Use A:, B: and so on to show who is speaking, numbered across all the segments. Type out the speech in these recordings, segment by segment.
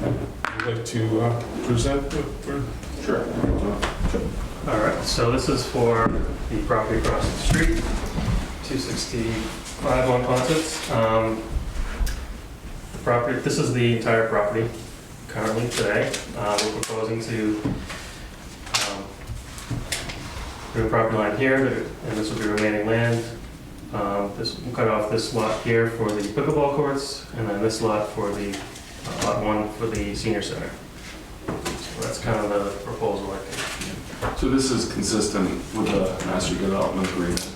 A: would like to uh, present the- for... Sure.
B: All right, so this is for the property across the street, 265 on Ponset. Um The property, this is the entire property currently today. Uh, We're proposing to um, do a property line here, and this will be remaining land. Um, This, we'll cut off this lot here for the pickleball courts, and then this lot for the, uh, lot one for the senior center. So that's kind of the proposal, I think.
C: So this is consistent with the master development agreement.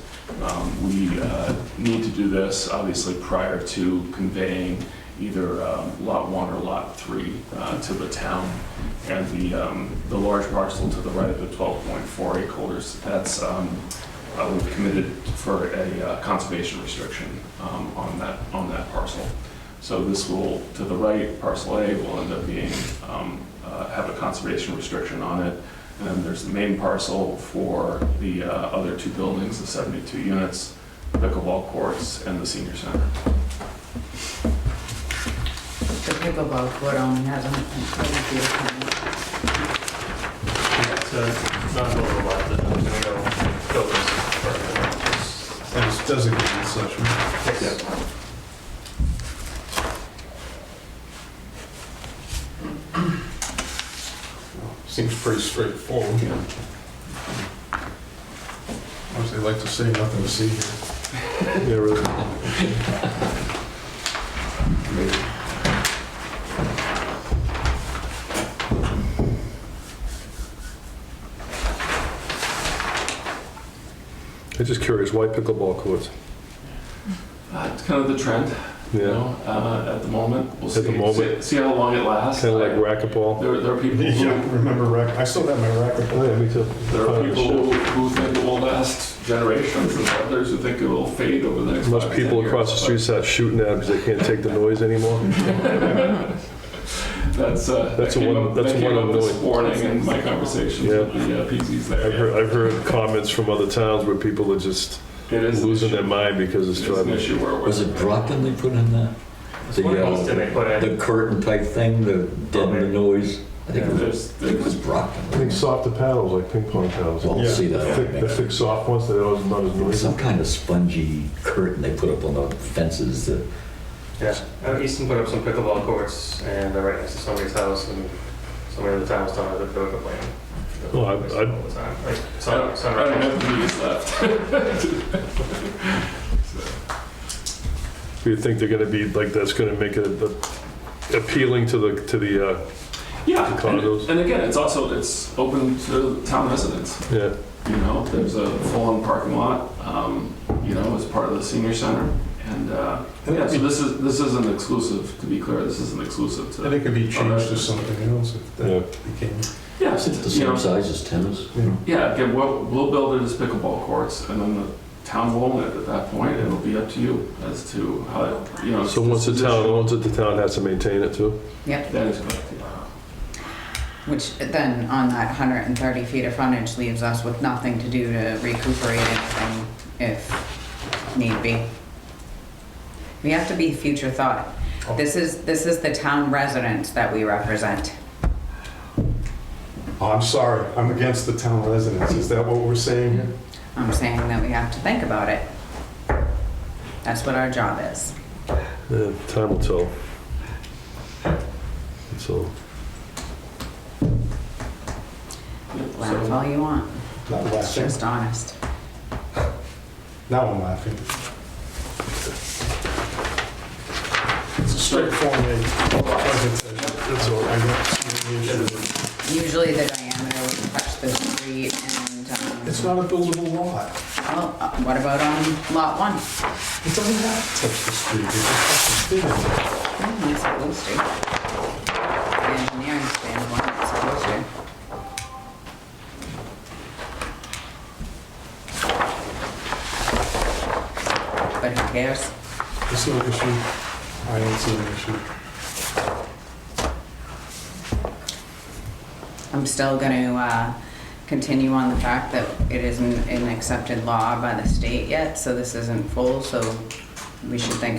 C: Um, We uh, need to do this, obviously, prior to conveying either um, Lot 1 or Lot 3 uh, to the town. And the, um, the large parcel to the right of the 12.4 acres, that's, um, uh, we've committed for a uh, conservation restriction um, on that, on that parcel. So this will, to the right, parcel A will end up being, um, uh, have a conservation restriction on it. And then there's the main parcel for the uh, other two buildings, the 72 units, pickleball courts, and the senior center.
D: The pickleball court only has a a
B: It's uh, not buildable lot, but I'm gonna go build this further. Just-
A: And it's designated such, right? Seems pretty straightforward. Obviously, like to say nothing to see here. Yeah, really.
E: I'm just curious, why pickleball courts?
C: Uh, It's kind of the trend, you
E: Yeah,
C: know, uh, at the moment. We'll
E: At the
C: see-
E: moment.
C: See see how long it lasts.
E: kind of like
C: I-
E: racquetball.
C: There there are people
A: Yeah,
C: who,
A: remember racket, I still have my racket.
E: Oh, yeah, me too.
C: there are people who who think it will last generations, and others who think it will fade over the next
E: Most
C: five,
E: people
C: 10
E: across the
C: years,
E: street start shooting at because they can't take the noise anymore.
C: but That's, uh, that
E: That's a
C: came
E: one-
C: up,
E: that's
C: that
E: a
C: came
E: one
C: up this
E: annoying.
C: morning in my conversations
E: Yeah.
C: with the uh, PZs
E: I've
C: there.
E: heard, I've heard comments from other towns where people are just
C: It is an
E: losing
C: issue.
E: their mind because it's
C: It is an
E: driving.
C: issue where we're.
F: Was it Brockton they put in that?
B: It's
F: The,
B: one of
F: uh,
B: those that they put in.
F: The curtain type thing that deadened the noise? I think it was,
C: There's,
F: I think it was
C: there's
E: I think
F: Brockton.
E: softer paddles, like ping pong paddles.
F: Well,
A: Yeah.
F: I'll see
E: The
F: that.
E: thick, the thick soft ones, they're always not as noisy.
F: Some kind of spongy curtain they put up on the fences that,
B: Yeah, Uh, Easton put up some pickleball courts, and they're right next to somebody's house, and somebody in the town was telling us that they were complaining.
E: Well, I- I-
B: All the time, like,
C: I
B: sun-
C: don't, I don't
B: sunrise.
C: have the means left.
E: Do you think they're gonna be, like, that's gonna make it uh, appealing to the, to the, uh,
C: Yeah,
E: Condos.
C: and, and again, it's also, it's open to town residents,
E: yeah,
C: you know, there's a full-on parking lot, um, you know, as part of the senior center. And, uh, yeah, so this is, this isn't exclusive, to be clear, this isn't exclusive
A: And
C: to,
A: it could be changed to something else if
E: yeah.
A: that became...
C: yeah,
F: the
C: you know,
F: same size as tennis.
C: Yeah, again, we'll, we'll build it as pickleball courts, and then the town will own it at that point, and it'll be up to you as to how, you know.
E: So once the town owns it, the town has to maintain it too?
D: Yep,
C: That is correct, yeah.
D: which then on that 130 feet of frontage leaves us with nothing to do to recuperate anything if need be. We have to be future thought.
A: Oh.
D: This is, this is the town residents that we represent.
A: Oh, I'm sorry, I'm against the town residents, is that what we're saying here?
D: I'm saying that we have to think about it. That's what our job is.
E: Yeah, time will tell. So,
D: Laugh all you want,
A: Not
D: it's
A: laughing,
D: just honest.
A: now I'm laughing. It's a straightforward presentation. That's all, I don't see any issue.
D: Usually the diameter would touch the street and, um,
A: It's not a buildable lot.
D: well, uh, what about on lot one?
A: It doesn't have to touch the street, it just touches the street.
D: Hmm, It's supposed to. The engineering standpoint, it's supposed to. But who cares?
A: It's no issue, I don't see an issue.
D: I'm still gonna, uh, continue on the fact that it isn't an accepted law by the state yet, so this isn't full, so we should think